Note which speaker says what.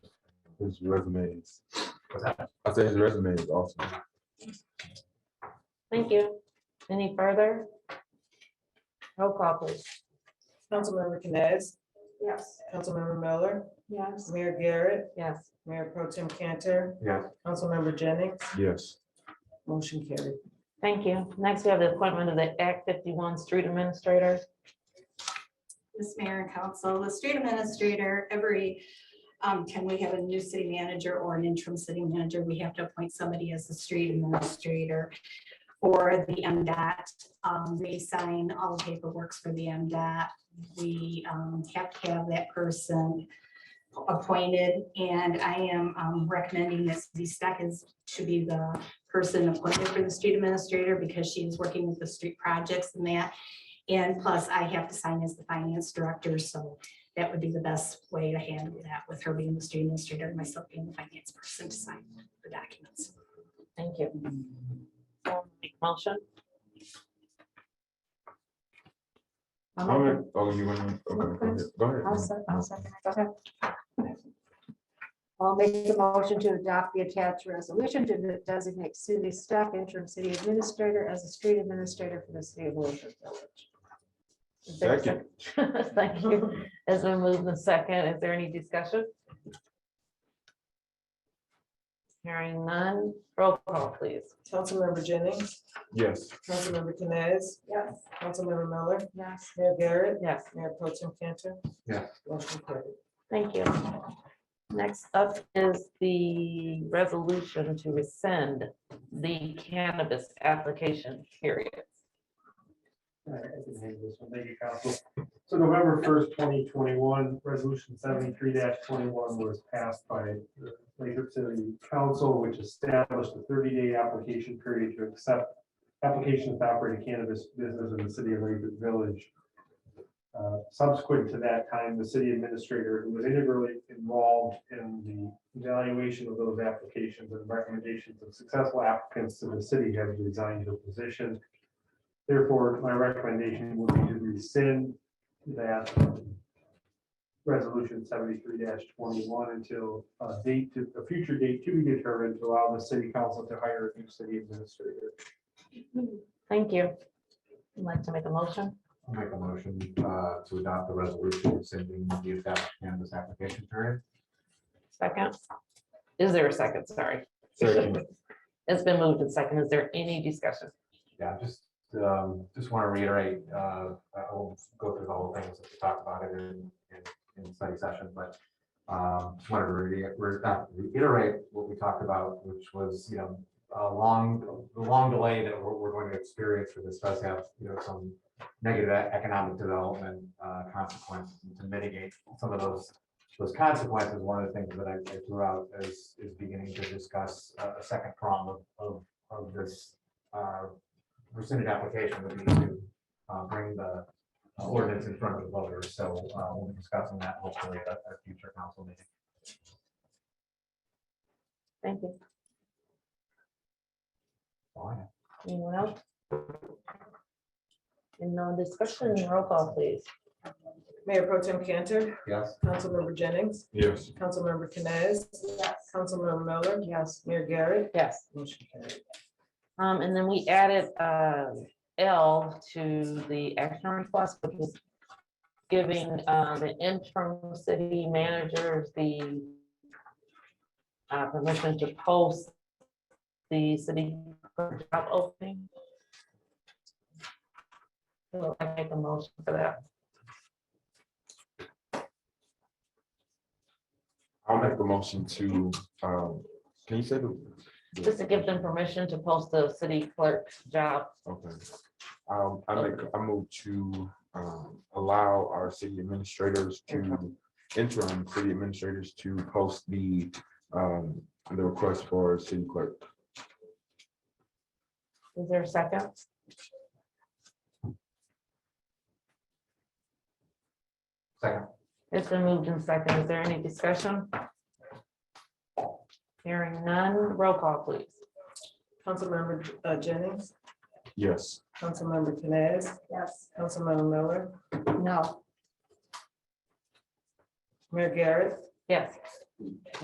Speaker 1: His resume is, I say his resume is awesome.
Speaker 2: Thank you. Any further? Roll call, please.
Speaker 3: Councilmember Canes,
Speaker 2: Yes.
Speaker 3: Councilmember Miller,
Speaker 2: Yes.
Speaker 3: Mayor Garrett,
Speaker 2: Yes.
Speaker 3: Mayor Pro Tim Cantor,
Speaker 1: Yes.
Speaker 3: Councilmember Jennings,
Speaker 1: Yes.
Speaker 3: motion carried.
Speaker 2: Thank you. Next, we have the appointment of the Act fifty-one Street Administrator.
Speaker 4: This mayor and council, the street administrator, every, um, can we have a new city manager or an interim city manager? We have to appoint somebody as the street administrator or the MDOT. Um, they sign all the paperwork for the MDOT. We, um, have to have that person appointed and I am, um, recommending that Suzie Stack is to be the person appointed for the street administrator because she is working with the street projects and that. And plus, I have to sign as the finance director, so that would be the best way to handle that with her being the student administrator and myself being the finance person to sign the documents.
Speaker 2: Thank you. Someone make a Motion.
Speaker 1: All right. Oh, you want to, okay, go ahead. go
Speaker 5: I'll
Speaker 1: ahead.
Speaker 5: sec- I'll second. it. Go ahead. I'll make the motion to adopt the attached resolution to designate Suzie Stack interim city administrator as a street administrator for the city of Wilshire Village.
Speaker 2: Is there a
Speaker 1: Second.
Speaker 2: second? Thank you. As we move the second, is there any discussion? Hearing none. Roll call, please.
Speaker 3: Councilmember Jennings,
Speaker 1: Yes.
Speaker 3: Councilmember Canes,
Speaker 5: Yes.
Speaker 3: Councilmember Miller,
Speaker 5: Yes.
Speaker 3: Mayor Garrett,
Speaker 2: Yes.
Speaker 3: Mayor Pro Tim Cantor.
Speaker 1: Yeah.
Speaker 3: Motion carried.
Speaker 2: Thank you. Next up is the resolution to rescind the cannabis application period.
Speaker 6: All right, I can handle this one. Thank you, council. So November first, twenty twenty-one, resolution seventy-three twenty-one was passed by the Lathrop City Council, which established a thirty-day application period to accept applications to operate a cannabis business in the city of Lathrop Village. Uh, Subsequent to that time, the city administrator, who was integrally involved in the evaluation of those applications and recommendations of successful applicants to the city, has resigned her position. Therefore, my recommendation would be to rescind that resolution seventy-three twenty-one until a date, to a future date to be determined to allow the city council to hire a new city administrator.
Speaker 2: Thank you. Would like to make a motion?
Speaker 7: I'll make a motion uh, to adopt the resolution rescinding the established cannabis application period.
Speaker 2: Second? Is there a second? Sorry.
Speaker 1: Second.
Speaker 2: It's been moved and second. Is there any discussion?
Speaker 7: Yeah, just, um, just want to reiterate, uh, I won't go through the whole thing, since we talked about it in, in, in study session, but um, just wanted to re- re- uh, reiterate what we talked about, which was, you know, a long, the long delay that we're, we're going to experience for this does have, you know, some negative e- economic development uh, consequences And to mitigate some of those, those consequences. One of the things that I I threw out is, is beginning to discuss uh, a second prong of, of, of this uh, rescinded application would be to uh, bring the uh, ordinance in front of the voters. So uh, we'll be discussing that hopefully at a future council meeting.
Speaker 2: Thank you.
Speaker 7: All I have.
Speaker 2: Anyone else? And no discussion, roll call please.
Speaker 3: Mayor Pro Tim Cantor,
Speaker 7: Yes,
Speaker 3: Councilmember Jennings,
Speaker 1: Yes.
Speaker 3: Councilmember Canes, Councilmember Miller,
Speaker 5: Yes.
Speaker 3: Mayor Garrett,
Speaker 2: Yes.
Speaker 3: motion carried.
Speaker 2: Um, and then we added, uh, L to the action request, which is giving, uh, the interim city managers the uh, permission to post the city clerk job opening. So I make a motion for that.
Speaker 1: I'll make the motion to, um, can you say the?
Speaker 2: Just to give them permission to post the city clerk's job.
Speaker 1: Okay. Um, I make, I move to, um, allow our city administrators to, interim city administrators to post the, um, the request for city clerk.
Speaker 2: Is there a second?
Speaker 7: second.
Speaker 2: It's been moved in second. Is there any discussion? Hearing none, roll call please.
Speaker 3: Councilmember uh, Jennings,
Speaker 1: Yes.
Speaker 3: Councilmember Canes,
Speaker 5: Yes.
Speaker 3: Councilmember Miller,
Speaker 5: No.
Speaker 3: Mayor Garrett,
Speaker 2: Yes.